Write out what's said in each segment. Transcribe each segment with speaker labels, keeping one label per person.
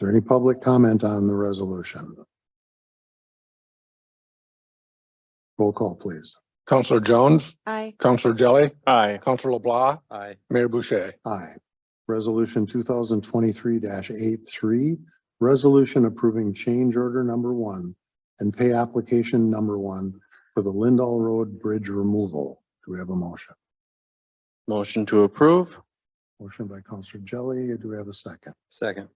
Speaker 1: there any public comment on the resolution? Roll call, please.
Speaker 2: Counselor Jones,
Speaker 3: Aye.
Speaker 2: Counselor Jelly,
Speaker 4: Aye.
Speaker 2: Counselor LeBlanc,
Speaker 4: Aye.
Speaker 2: Mayor Boucher.
Speaker 1: Aye. Resolution two thousand twenty-three 83 resolution approving change order number one and pay application number one for the Lindall Road Bridge removal. Do we have a motion?
Speaker 4: Motion to approve?
Speaker 1: Motion by Counselor Jelly. Do we have a second?
Speaker 4: Second.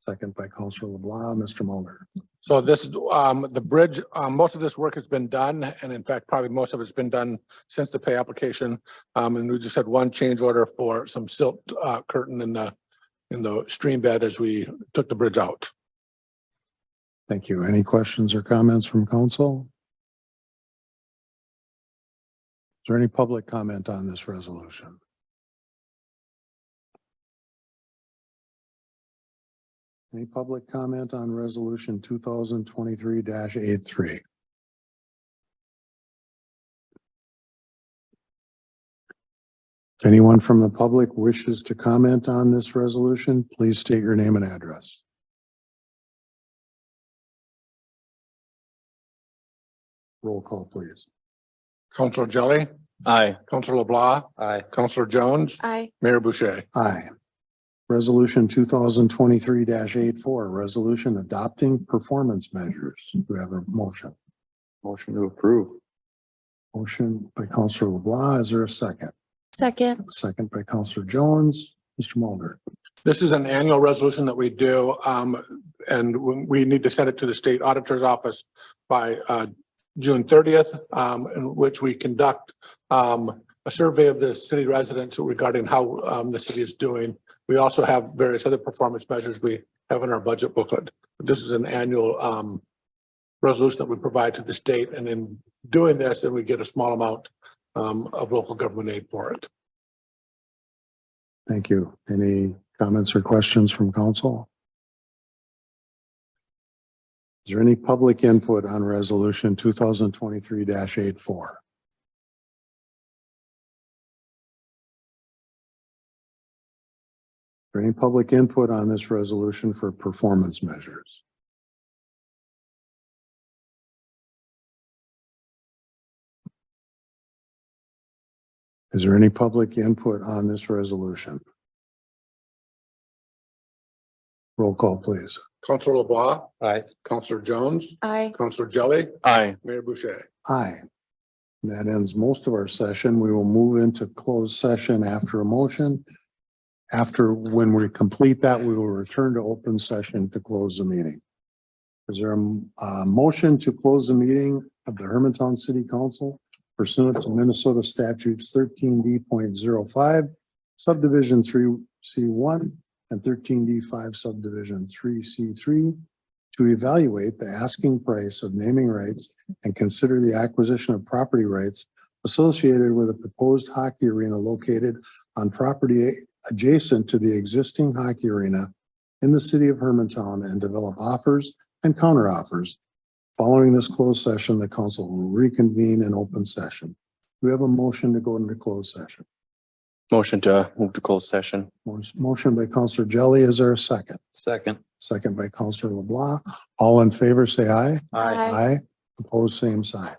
Speaker 1: Second by Counselor LeBlanc. Mr. Mulder.
Speaker 2: So this, um, the bridge, um, most of this work has been done, and in fact, probably most of it's been done since the pay application. Um, and we just had one change order for some silt, uh, curtain in the, in the stream bed as we took the bridge out.
Speaker 1: Thank you. Any questions or comments from council? Is there any public comment on this resolution? Any public comment on resolution two thousand twenty-three 83 If anyone from the public wishes to comment on this resolution, please state your name and address. Roll call, please.
Speaker 2: Counselor Jelly,
Speaker 4: Aye.
Speaker 2: Counselor LeBlanc,
Speaker 4: Aye.
Speaker 2: Counselor Jones,
Speaker 3: Aye.
Speaker 2: Mayor Boucher.
Speaker 1: Aye. Resolution two thousand twenty-three 84 resolution adopting performance measures. Do we have a motion?
Speaker 4: Motion to approve?
Speaker 1: Motion by Counselor LeBlanc. Is there a second?
Speaker 3: Second.
Speaker 1: Second by Counselor Jones. Mr. Mulder.
Speaker 2: This is an annual resolution that we do, um, and we- we need to send it to the state auditor's office by, uh, June thirtieth, um, in which we conduct, um, a survey of the city residents regarding how, um, the city is doing. We also have various other performance measures we have in our budget booklet. This is an annual, um, resolution that we provide to the state, and in doing this, then we get a small amount, um, of local government aid for it.
Speaker 1: Thank you. Any comments or questions from council? Is there any public input on resolution two thousand twenty-three 84 Is there any public input on this resolution for performance measures? Is there any public input on this resolution? Roll call, please.
Speaker 2: Counselor LeBlanc,
Speaker 4: Aye.
Speaker 2: Counselor Jones,
Speaker 3: Aye.
Speaker 2: Counselor Jelly,
Speaker 4: Aye.
Speaker 2: Mayor Boucher.
Speaker 1: Aye. And That ends most of our session. We will move into closed session after a motion. After, when we complete that, we will return to open session to close the meeting. Is there a, m- a motion to close the meeting of the Hermantown City Council pursuant to Minnesota statutes thirteen d05 subdivision three C one and thirteen D five subdivision three C three to evaluate the asking price of naming rights and consider the acquisition of property rights associated with a proposed hockey arena located on property adjacent to the existing hockey arena in the city of Hermantown and develop offers and counteroffers. Following this closed session, the council will reconvene in open session. We have a motion to go into closed session.
Speaker 4: Motion to move to closed session?
Speaker 1: Motion by Counselor Jelly. Is there a second?
Speaker 4: Second.
Speaker 1: Second by Counselor LeBlanc. All in favor, say aye.
Speaker 3: Aye.
Speaker 1: Aye. Opposed, same sign.